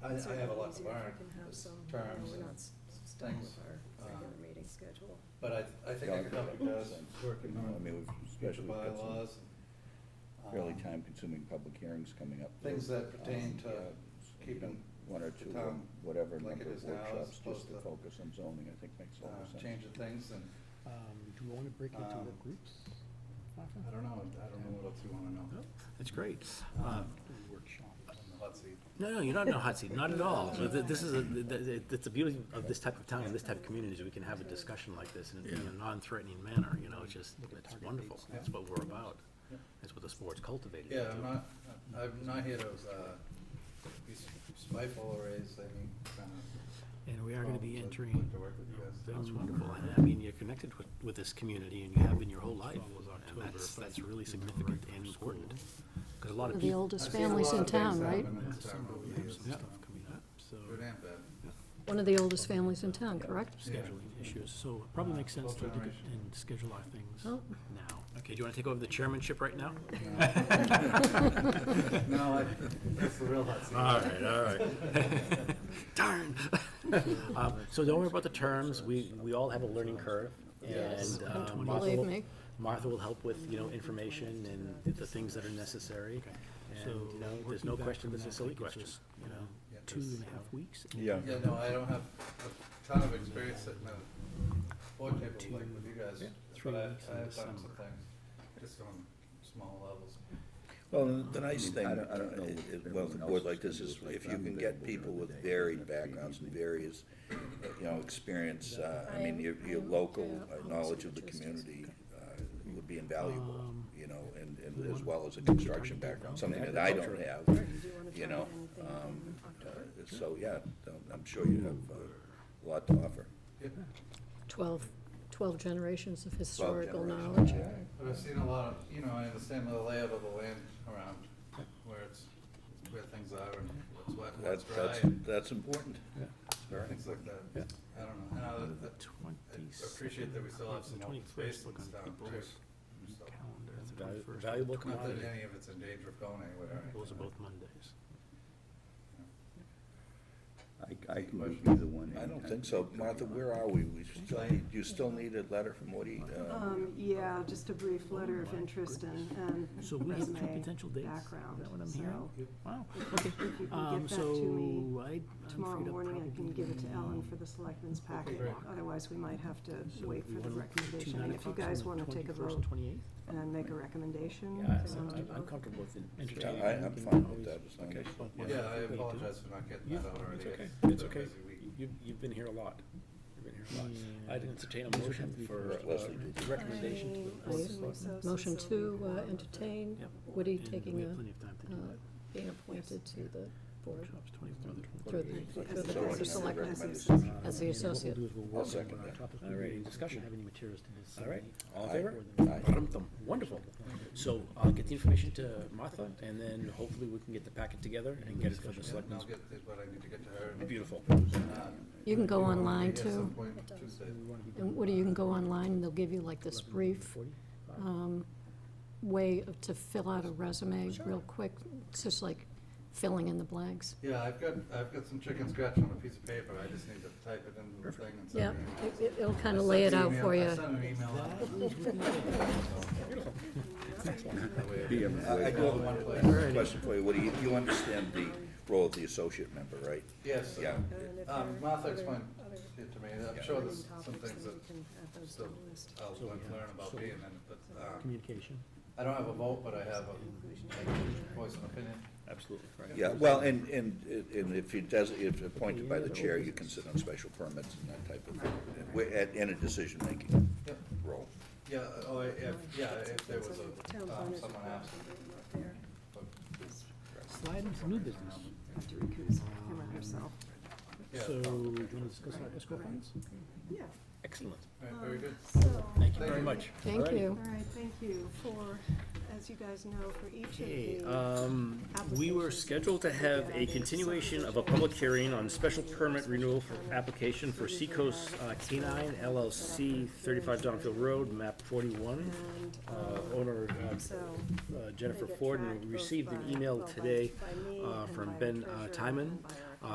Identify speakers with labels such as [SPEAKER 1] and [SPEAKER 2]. [SPEAKER 1] I, I have a lot to learn as terms
[SPEAKER 2] It's sort of easier if you can have some, you know, we're
[SPEAKER 1] and,
[SPEAKER 2] not s- stuck with our regular
[SPEAKER 1] Uh,
[SPEAKER 2] meeting schedule.
[SPEAKER 1] but I, I think I
[SPEAKER 3] Yeah, I
[SPEAKER 1] could
[SPEAKER 3] think
[SPEAKER 1] help
[SPEAKER 3] that
[SPEAKER 1] you guys
[SPEAKER 3] makes sense.
[SPEAKER 1] working
[SPEAKER 3] You know, I
[SPEAKER 1] on
[SPEAKER 3] mean,
[SPEAKER 1] the
[SPEAKER 3] we've especially got some
[SPEAKER 1] bylaws. and,
[SPEAKER 3] Fairly
[SPEAKER 1] um,
[SPEAKER 3] time-consuming public hearings coming up.
[SPEAKER 1] Things that
[SPEAKER 3] Um,
[SPEAKER 1] pertain to
[SPEAKER 3] yeah, you know,
[SPEAKER 1] keeping
[SPEAKER 3] One or
[SPEAKER 1] the
[SPEAKER 3] two,
[SPEAKER 1] town
[SPEAKER 3] um, whatever
[SPEAKER 1] like
[SPEAKER 3] number
[SPEAKER 1] it is
[SPEAKER 3] of
[SPEAKER 1] now as
[SPEAKER 3] workshops,
[SPEAKER 1] opposed
[SPEAKER 3] just to
[SPEAKER 1] to,
[SPEAKER 3] focus on zoning, I think makes a lot of
[SPEAKER 1] Uh,
[SPEAKER 3] sense.
[SPEAKER 1] change of things and,
[SPEAKER 4] Um, do we want to break into
[SPEAKER 1] Um,
[SPEAKER 4] work groups? Martha?
[SPEAKER 5] I don't know, I don't know what else you wanna know.
[SPEAKER 6] That's great. Uh,
[SPEAKER 4] Um, do a workshop.
[SPEAKER 1] and the hot seat.
[SPEAKER 6] No, no, you're not in a hot seat, not at all. But th- This is, a- th- th- it's the beauty of this type of town, and this type of community, is we can have a discussion like this in a- in a non-threatening manner, you know, it's just, it's wonderful. That's what we're about. That's what the sport's cultivated.
[SPEAKER 1] Yeah, I'm
[SPEAKER 6] into.
[SPEAKER 1] not, I'm not here to, uh, be spiteful or raise any kind of.
[SPEAKER 4] And we are going to be
[SPEAKER 1] problems. I'd
[SPEAKER 4] entering,
[SPEAKER 1] like to work with you guys.
[SPEAKER 6] That's wonderful. And I mean, you're connected with, with this community, and you have been your whole life. And that's, that's really significant and important. Because a lot of
[SPEAKER 2] The
[SPEAKER 6] people.
[SPEAKER 2] oldest
[SPEAKER 1] I've seen a
[SPEAKER 2] families
[SPEAKER 1] lot
[SPEAKER 2] in
[SPEAKER 1] of things
[SPEAKER 2] town, right?
[SPEAKER 1] happen in this town
[SPEAKER 5] December,
[SPEAKER 1] over
[SPEAKER 5] we
[SPEAKER 1] the
[SPEAKER 5] have
[SPEAKER 1] years.
[SPEAKER 5] some
[SPEAKER 6] Yeah,
[SPEAKER 5] stuff
[SPEAKER 6] coming up, so
[SPEAKER 1] Good and bad.
[SPEAKER 2] One of the oldest families in town, correct?
[SPEAKER 6] scheduling issues, so it probably makes sense to look at
[SPEAKER 1] Generation.
[SPEAKER 6] and schedule our things
[SPEAKER 2] Oh.
[SPEAKER 6] now. Okay, do you want to take over the chairmanship right now?
[SPEAKER 1] No, I, that's the real hot seat.
[SPEAKER 6] right, all right. Darn. Um, So don't worry about the terms, we, we all have a learning curve.
[SPEAKER 2] Yes.
[SPEAKER 6] and, uh,
[SPEAKER 2] Don't
[SPEAKER 6] Martha
[SPEAKER 2] believe
[SPEAKER 6] will-
[SPEAKER 2] me.
[SPEAKER 6] Martha will help with, you know, information and the things that are necessary. And, you know, there's no
[SPEAKER 4] working back
[SPEAKER 6] question,
[SPEAKER 4] from
[SPEAKER 6] this is a
[SPEAKER 4] that,
[SPEAKER 6] silly
[SPEAKER 4] that gives
[SPEAKER 6] question,
[SPEAKER 4] us,
[SPEAKER 6] you know.
[SPEAKER 1] Yeah.
[SPEAKER 4] two and a half weeks. and
[SPEAKER 3] Yeah.
[SPEAKER 1] Yeah, no, I don't have a ton of experience sitting at a board table like with you guys, but
[SPEAKER 4] three
[SPEAKER 1] I,
[SPEAKER 4] weeks in
[SPEAKER 1] I have done some
[SPEAKER 4] December.
[SPEAKER 1] things, just on small levels.
[SPEAKER 7] Well, the nice
[SPEAKER 3] mean,
[SPEAKER 7] thing,
[SPEAKER 3] I don't- I don't know
[SPEAKER 7] uh,
[SPEAKER 3] if
[SPEAKER 7] is-
[SPEAKER 3] everyone
[SPEAKER 7] well, the
[SPEAKER 3] else
[SPEAKER 7] board
[SPEAKER 3] is
[SPEAKER 7] like
[SPEAKER 3] gonna
[SPEAKER 7] this
[SPEAKER 3] do
[SPEAKER 7] is,
[SPEAKER 3] it, like
[SPEAKER 7] if you
[SPEAKER 3] I'm
[SPEAKER 7] can
[SPEAKER 3] available
[SPEAKER 7] get people
[SPEAKER 3] during
[SPEAKER 7] with
[SPEAKER 3] the day,
[SPEAKER 7] varied
[SPEAKER 3] but that
[SPEAKER 7] backgrounds and
[SPEAKER 3] preview-
[SPEAKER 7] various, uh, you know, experience, uh, I mean,
[SPEAKER 2] I'm-
[SPEAKER 7] your, your
[SPEAKER 2] I'm-
[SPEAKER 7] local
[SPEAKER 2] yeah,
[SPEAKER 7] uh,
[SPEAKER 2] I'm
[SPEAKER 7] knowledge of the
[SPEAKER 2] interested.
[SPEAKER 7] community uh, would be invaluable,
[SPEAKER 4] Um,
[SPEAKER 7] you know, and,
[SPEAKER 4] we
[SPEAKER 7] and as
[SPEAKER 4] want-
[SPEAKER 7] well as a
[SPEAKER 4] do we
[SPEAKER 7] construction
[SPEAKER 4] target
[SPEAKER 7] background,
[SPEAKER 4] that now?
[SPEAKER 7] something that I don't
[SPEAKER 3] Agriculture.
[SPEAKER 7] have,
[SPEAKER 2] Or do you wanna
[SPEAKER 7] you
[SPEAKER 2] target
[SPEAKER 7] know.
[SPEAKER 2] anything
[SPEAKER 7] um,
[SPEAKER 2] in
[SPEAKER 7] uh,
[SPEAKER 2] October?
[SPEAKER 7] So, yeah, um, I'm sure you have uh, a lot to offer.
[SPEAKER 1] Yep.
[SPEAKER 2] Twelve, twelve generations of historical
[SPEAKER 7] generations,
[SPEAKER 2] knowledge.
[SPEAKER 7] yeah.
[SPEAKER 1] But I've seen a lot of, you know, I understand the layout of the land around where it's, where things are and what's wet, and what's
[SPEAKER 7] That's,
[SPEAKER 1] dry,
[SPEAKER 7] that's,
[SPEAKER 1] and
[SPEAKER 7] that's important. Very
[SPEAKER 1] things like
[SPEAKER 7] Yeah.
[SPEAKER 1] that. I don't know, and I, I appreciate that we still have some open space in this town too. So,
[SPEAKER 6] It's a
[SPEAKER 4] calendar.
[SPEAKER 6] valu- valuable
[SPEAKER 1] Not that
[SPEAKER 6] commodity.
[SPEAKER 1] any of it's in danger of going anywhere. or
[SPEAKER 6] Those are
[SPEAKER 1] anything.
[SPEAKER 6] both Mondays.
[SPEAKER 3] I, I can do either one.
[SPEAKER 7] I don't
[SPEAKER 3] anytime.
[SPEAKER 7] think so. Martha, where are we? We still need, you still need a letter from Woody? uh,
[SPEAKER 8] Um, yeah, just a brief letter of interest and, and
[SPEAKER 4] So we have two
[SPEAKER 8] resume
[SPEAKER 4] potential dates? Is
[SPEAKER 8] background.
[SPEAKER 4] that what I'm
[SPEAKER 8] So
[SPEAKER 4] hearing? Wow,
[SPEAKER 8] If
[SPEAKER 4] okay.
[SPEAKER 8] you can
[SPEAKER 4] Um,
[SPEAKER 8] get that to me
[SPEAKER 4] so I, I'm
[SPEAKER 8] tomorrow
[SPEAKER 4] afraid I'll
[SPEAKER 8] morning, I can
[SPEAKER 4] probably
[SPEAKER 8] give it to Ellen for the selectmen's packet.
[SPEAKER 1] great.
[SPEAKER 8] Otherwise, we might have to
[SPEAKER 4] So
[SPEAKER 8] wait
[SPEAKER 4] we
[SPEAKER 8] for the
[SPEAKER 4] wanna do two
[SPEAKER 8] recommendation.
[SPEAKER 4] nine
[SPEAKER 8] And if you
[SPEAKER 4] o'clocks on
[SPEAKER 8] guys
[SPEAKER 4] the
[SPEAKER 8] wanna take a
[SPEAKER 4] 21st
[SPEAKER 8] vote
[SPEAKER 4] and 28th?
[SPEAKER 8] and make a recommendation. um,
[SPEAKER 6] comfortable with
[SPEAKER 7] Yeah,
[SPEAKER 4] entertaining.
[SPEAKER 7] I, I'm fine with that, as long
[SPEAKER 6] Okay.
[SPEAKER 7] as.
[SPEAKER 6] Yeah.
[SPEAKER 1] Yeah, I apologize for not getting
[SPEAKER 6] Yeah,
[SPEAKER 1] that out already.
[SPEAKER 6] it's okay,
[SPEAKER 1] been
[SPEAKER 6] it's
[SPEAKER 1] a
[SPEAKER 6] okay.
[SPEAKER 1] busy week.
[SPEAKER 6] You, you've been here a lot. You've been here a lot.
[SPEAKER 4] Yeah.
[SPEAKER 6] I'd entertain a motion for uh,
[SPEAKER 7] Leslie did.
[SPEAKER 6] recommendation to the
[SPEAKER 2] I-
[SPEAKER 6] Board of
[SPEAKER 2] Motion
[SPEAKER 6] Selectmen.
[SPEAKER 2] Motion to uh, entertain
[SPEAKER 4] Yep.
[SPEAKER 2] Woody
[SPEAKER 4] And
[SPEAKER 2] taking
[SPEAKER 4] we have
[SPEAKER 2] a,
[SPEAKER 4] plenty of time to do
[SPEAKER 2] uh,
[SPEAKER 4] that.
[SPEAKER 2] being appointed to the board
[SPEAKER 4] Workshops 24 to
[SPEAKER 2] through
[SPEAKER 4] 28.
[SPEAKER 2] the,
[SPEAKER 8] As
[SPEAKER 2] through the
[SPEAKER 8] a-
[SPEAKER 2] board
[SPEAKER 8] as a
[SPEAKER 2] of
[SPEAKER 8] select-
[SPEAKER 2] selectmen
[SPEAKER 8] as a-
[SPEAKER 2] as the associate.
[SPEAKER 7] I'll second that.
[SPEAKER 6] All right, discussion.
[SPEAKER 4] Have any materials to this?
[SPEAKER 6] All right,
[SPEAKER 4] uh,
[SPEAKER 6] all in favor?
[SPEAKER 7] Aye.
[SPEAKER 6] Ba-dum-thum. Wonderful. So I'll get the information to Martha, and then hopefully we can get the packet together and get it for the
[SPEAKER 1] And I'll
[SPEAKER 6] selectmen's.
[SPEAKER 1] get the- what I need to get to her. and,
[SPEAKER 6] Beautiful.
[SPEAKER 1] uh,
[SPEAKER 2] You can go
[SPEAKER 1] I'll be
[SPEAKER 2] online
[SPEAKER 1] at some
[SPEAKER 2] too.
[SPEAKER 1] point Tuesday.
[SPEAKER 4] we wanna be
[SPEAKER 2] And Woody, you can go online, and they'll give you like this brief
[SPEAKER 4] 40?
[SPEAKER 2] um, way of- to fill out a resume real quick. It's just like filling in the blanks.
[SPEAKER 1] Yeah, I've got, I've got some chicken scratch on a piece of paper, I just need to type it into the thing and
[SPEAKER 2] Yeah,
[SPEAKER 1] send it.
[SPEAKER 2] it- it- it'll kind of lay it out for you.
[SPEAKER 1] I sent an email out. That way I
[SPEAKER 3] Be
[SPEAKER 1] can-
[SPEAKER 3] everywhere.
[SPEAKER 7] I do have
[SPEAKER 1] All in one place.
[SPEAKER 7] a question for you, Woody. You- You understand the role of the associate member, right?
[SPEAKER 1] Yes,
[SPEAKER 7] Yeah.
[SPEAKER 2] And
[SPEAKER 1] um,
[SPEAKER 2] if there are
[SPEAKER 1] Martha
[SPEAKER 2] other-
[SPEAKER 1] explained
[SPEAKER 2] other
[SPEAKER 1] it to me, I'm
[SPEAKER 7] Yeah.
[SPEAKER 1] sure
[SPEAKER 2] burning
[SPEAKER 1] there's some
[SPEAKER 2] topics,
[SPEAKER 1] things
[SPEAKER 2] then
[SPEAKER 1] that
[SPEAKER 2] we can add those to
[SPEAKER 1] still uh,
[SPEAKER 2] the list.
[SPEAKER 1] I'll
[SPEAKER 4] So we have-
[SPEAKER 1] learn about
[SPEAKER 4] so-
[SPEAKER 1] being in, it, but, um,
[SPEAKER 4] Communication.
[SPEAKER 1] I don't have a vote, but I have a voice and opinion.
[SPEAKER 6] Absolutely, right.
[SPEAKER 7] Yeah, well, and, and, and if he does, if appointed by the chair, you can sit on special permits and that type of, thing. We're at- in a decision-making
[SPEAKER 1] Yep.
[SPEAKER 7] role.
[SPEAKER 1] Yeah, oh, if, yeah, if there was
[SPEAKER 2] That's under the
[SPEAKER 1] a,
[SPEAKER 2] town
[SPEAKER 1] um,
[SPEAKER 2] planner's
[SPEAKER 1] someone
[SPEAKER 2] report,
[SPEAKER 1] asked,
[SPEAKER 2] something up there.
[SPEAKER 1] but,
[SPEAKER 4] Slide into new business.
[SPEAKER 8] Have to recuse him
[SPEAKER 6] Ah.
[SPEAKER 8] or herself.
[SPEAKER 1] yeah.
[SPEAKER 4] So do you want to discuss our escrow funds?
[SPEAKER 8] Yeah. um,
[SPEAKER 6] Excellent.
[SPEAKER 1] All right,
[SPEAKER 2] Um,
[SPEAKER 1] very good.
[SPEAKER 8] So,
[SPEAKER 6] Thank you very
[SPEAKER 1] Thank you.
[SPEAKER 6] much.
[SPEAKER 2] Thank
[SPEAKER 6] Alrighty.
[SPEAKER 8] all
[SPEAKER 2] you.
[SPEAKER 8] right, thank you for, as you guys know, for each of
[SPEAKER 6] Okay,
[SPEAKER 8] the.
[SPEAKER 6] um, we were scheduled to have a continuation of a public hearing on special permit renewal for application for Seacoast uh, Canine LLC, thirty-five Donfield Road, map forty-one.
[SPEAKER 8] And,
[SPEAKER 6] Uh,
[SPEAKER 8] um,
[SPEAKER 6] owner uh,
[SPEAKER 8] so.
[SPEAKER 6] uh, Jennifer Ford, and we received an email today uh, from Ben uh, Timon